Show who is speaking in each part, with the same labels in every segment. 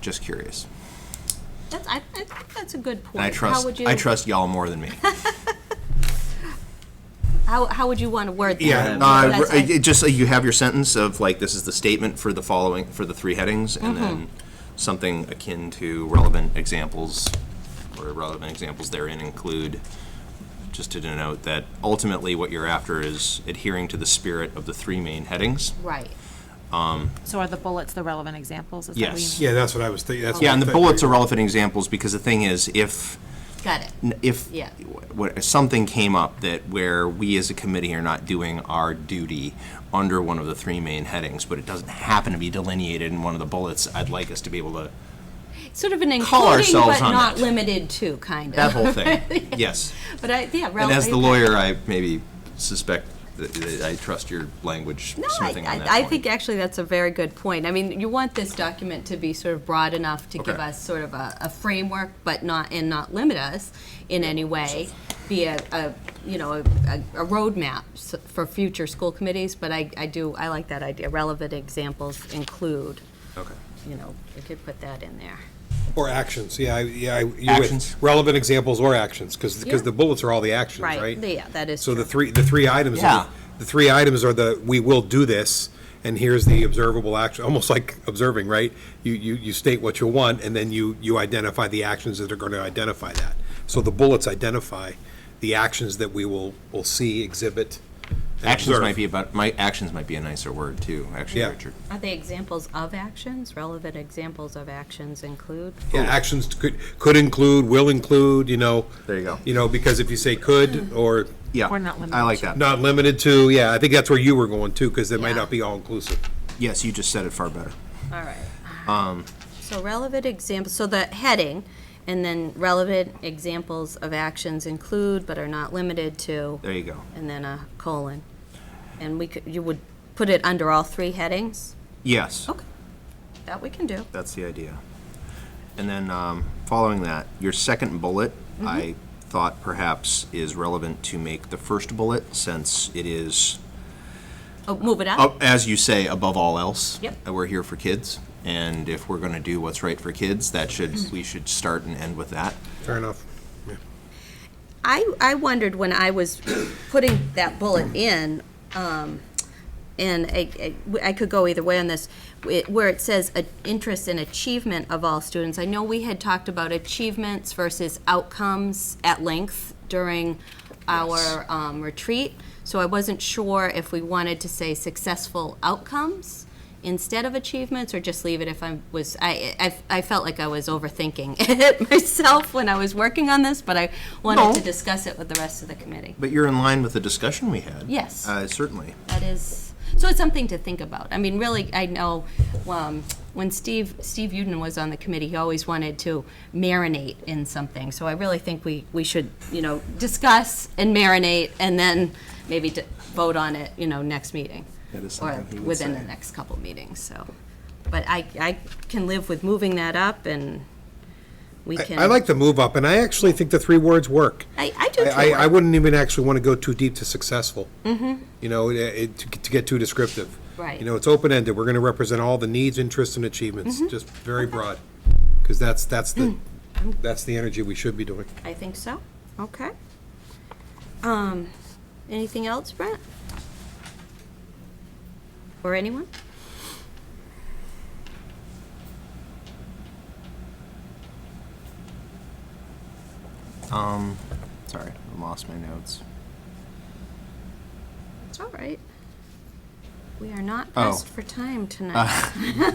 Speaker 1: Just curious.
Speaker 2: That's, I, I think that's a good point.
Speaker 1: And I
Speaker 2: How would
Speaker 1: trust,
Speaker 2: you?
Speaker 1: I trust y'all more than me.
Speaker 2: How, how would you want to word that?
Speaker 1: Yeah,
Speaker 2: That's-
Speaker 1: uh,
Speaker 2: I-
Speaker 1: it just, uh, you have your sentence of like, this is the statement for the following, for the three headings, and
Speaker 2: Mm-hmm.
Speaker 1: then something akin to relevant examples, or relevant examples therein include, just to denote that ultimately what you're after is adhering to the spirit of the three main headings.
Speaker 2: Right.
Speaker 3: So are the bullets the relevant examples? Is that what you
Speaker 1: Yes.
Speaker 3: mean?
Speaker 4: Yeah, that's what I was thinking. that's
Speaker 1: Yeah,
Speaker 4: what
Speaker 1: and
Speaker 4: I
Speaker 1: the
Speaker 4: think.
Speaker 1: bullets are relevant examples, because the thing is, if,
Speaker 2: Got it.
Speaker 1: n- if
Speaker 2: Yeah.
Speaker 1: what, something came up that where we as a committee are not doing our duty under one of the three main headings, but it doesn't happen to be delineated in one of the bullets, I'd like us to be able to,
Speaker 2: Sort of an
Speaker 1: Call
Speaker 2: including
Speaker 1: ourselves
Speaker 2: but
Speaker 1: on
Speaker 2: not
Speaker 1: it.
Speaker 2: limited to, kind of.
Speaker 1: that whole thing, yes.
Speaker 2: But I, yeah.
Speaker 1: And
Speaker 2: relevant-
Speaker 1: as the lawyer, I maybe suspect that- that I trust your language
Speaker 2: No, I,
Speaker 1: smithing on that
Speaker 2: I- I
Speaker 1: point.
Speaker 2: think actually that's a very good point. I mean, you want this document to be sort of broad enough to give
Speaker 1: Okay.
Speaker 2: us sort of a, a framework, but not, and not limit us in any way, be a, a, you know, a, a roadmap s- for future school committees, but I, I do, I like that idea, relevant examples include,
Speaker 1: Okay.
Speaker 2: you know, we could put that in there.
Speaker 4: Or actions, yeah, I- yeah. I- you're with-
Speaker 1: Actions.
Speaker 4: Relevant examples or actions, because,
Speaker 2: Yeah.
Speaker 4: the bullets are all the actions, right?
Speaker 2: Yeah, that is
Speaker 4: So the
Speaker 2: true.
Speaker 4: three, the three items, are the-
Speaker 1: Yeah.
Speaker 4: the three items are the, we will do this, and here's the observable action, almost like observing, right? You, you, you state what you want, and then you, you identify the actions that are going to identify that. So the bullets identify the actions that we will, will see, exhibit, and
Speaker 1: Actions
Speaker 4: observe.
Speaker 1: might be about, my, actions might be a nicer word too, actually,
Speaker 4: Yeah.
Speaker 1: Richard.
Speaker 2: Are they examples of actions? Relevant examples of actions include?
Speaker 4: Yeah, actions could, could include, will include, you know.
Speaker 1: There you go.
Speaker 4: You know, because if you say could, or
Speaker 1: Yeah,
Speaker 3: Or not limited
Speaker 1: I like
Speaker 3: to.
Speaker 1: that.
Speaker 4: not limited to, yeah, I think that's where you were going too, because it might
Speaker 2: Yeah.
Speaker 4: not be all inclusive.
Speaker 1: Yes, you just said it far better.
Speaker 2: All right.
Speaker 4: Um,
Speaker 2: So relevant examples, so the heading, and then relevant examples of actions include but are not limited to,
Speaker 1: There you go.
Speaker 2: and then a colon. And we could, you would put it under all three headings?
Speaker 1: Yes.
Speaker 2: Okay. That we can do.
Speaker 1: That's the idea. And then, um, following that, your second bullet, I thought perhaps is relevant to make the first bullet, since it is,
Speaker 2: Oh, move it up?
Speaker 1: up- as you say, above all else.
Speaker 2: Yep.
Speaker 1: uh, We're here for kids, and if we're gonna do what's right for kids, that should, we should start and end with that.
Speaker 4: Fair enough. Yeah.
Speaker 2: I, I wondered when I was putting that bullet in, um, and I, I- I could go either way on this, wh- where it says uh, interest and achievement of all students. I know we had talked about achievements versus outcomes at length during our um, retreat, so I wasn't sure if we wanted to say successful outcomes instead of achievements or just leave it if I was I, I, I felt like I was overthinking it myself when I was working on this but I wanted to discuss it with the rest of the committee
Speaker 1: But you're in line with the discussion we had.
Speaker 2: Yes.
Speaker 1: Uh, certainly.
Speaker 2: that is so it's something to think about I mean really I know um, when Steve Steve Uden was on the committee he always wanted to marinate in something so I really think we we should you know discuss and marinate and then maybe d- vote on it you know next meeting
Speaker 1: That is
Speaker 2: or
Speaker 1: something he would
Speaker 2: within the
Speaker 1: say.
Speaker 2: next couple meetings so but I, I can live with moving that up and we
Speaker 4: I-
Speaker 2: can
Speaker 4: I like the move up, and I actually think the three words work.
Speaker 2: I, I do too.
Speaker 4: I, I, I wouldn't even actually want to go too deep to successful. Mm-hmm. You know, it- it, to, to get too descriptive.
Speaker 2: Right.
Speaker 4: You know, it's open ended. We're going to represent all the needs, interests, and achievements, just very broad, because that's that's the that's the energy we should be doing.
Speaker 2: I think so. Okay. Um, anything else, Brent? Or anyone?
Speaker 1: Um, sorry, I lost my notes.
Speaker 2: It's all right. We are not
Speaker 1: Oh.
Speaker 2: pressed for time tonight.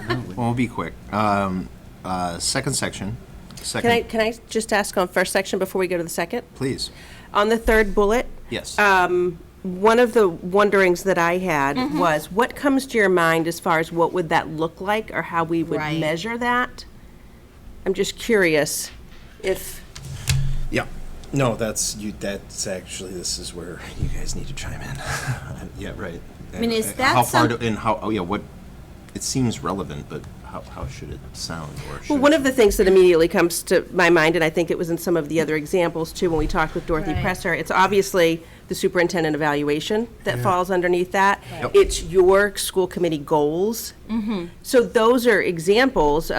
Speaker 1: Well, we'll be quick. Um, uh, second section,
Speaker 5: Can I,
Speaker 1: second,
Speaker 5: can I just ask on first section before we go to the second?
Speaker 1: please.
Speaker 5: On the third bullet,
Speaker 1: Yes.
Speaker 5: one of the wonderings that I had
Speaker 2: Mm-hmm.
Speaker 5: was, what comes to your mind as far as what would that look like or how we would
Speaker 2: Right.
Speaker 5: measure that? I'm just curious if,
Speaker 1: Yeah. No, that's you. That's actually this is where you guys need to chime in. yeah, right. I
Speaker 2: mean, is that
Speaker 1: how far?
Speaker 2: some-
Speaker 1: do, and how? Oh, yeah. What? It seems relevant, but how, how should it sound? Or should
Speaker 5: well, one of the things that immediately comes to my mind, and I think it was in some of the other examples too, when we talked with Dorothy
Speaker 2: Right.
Speaker 5: Presser, it's obviously the superintendent evaluation that falls underneath that.
Speaker 1: Yep.
Speaker 2: Mm-hmm.
Speaker 5: It's your school committee goals. So those are examples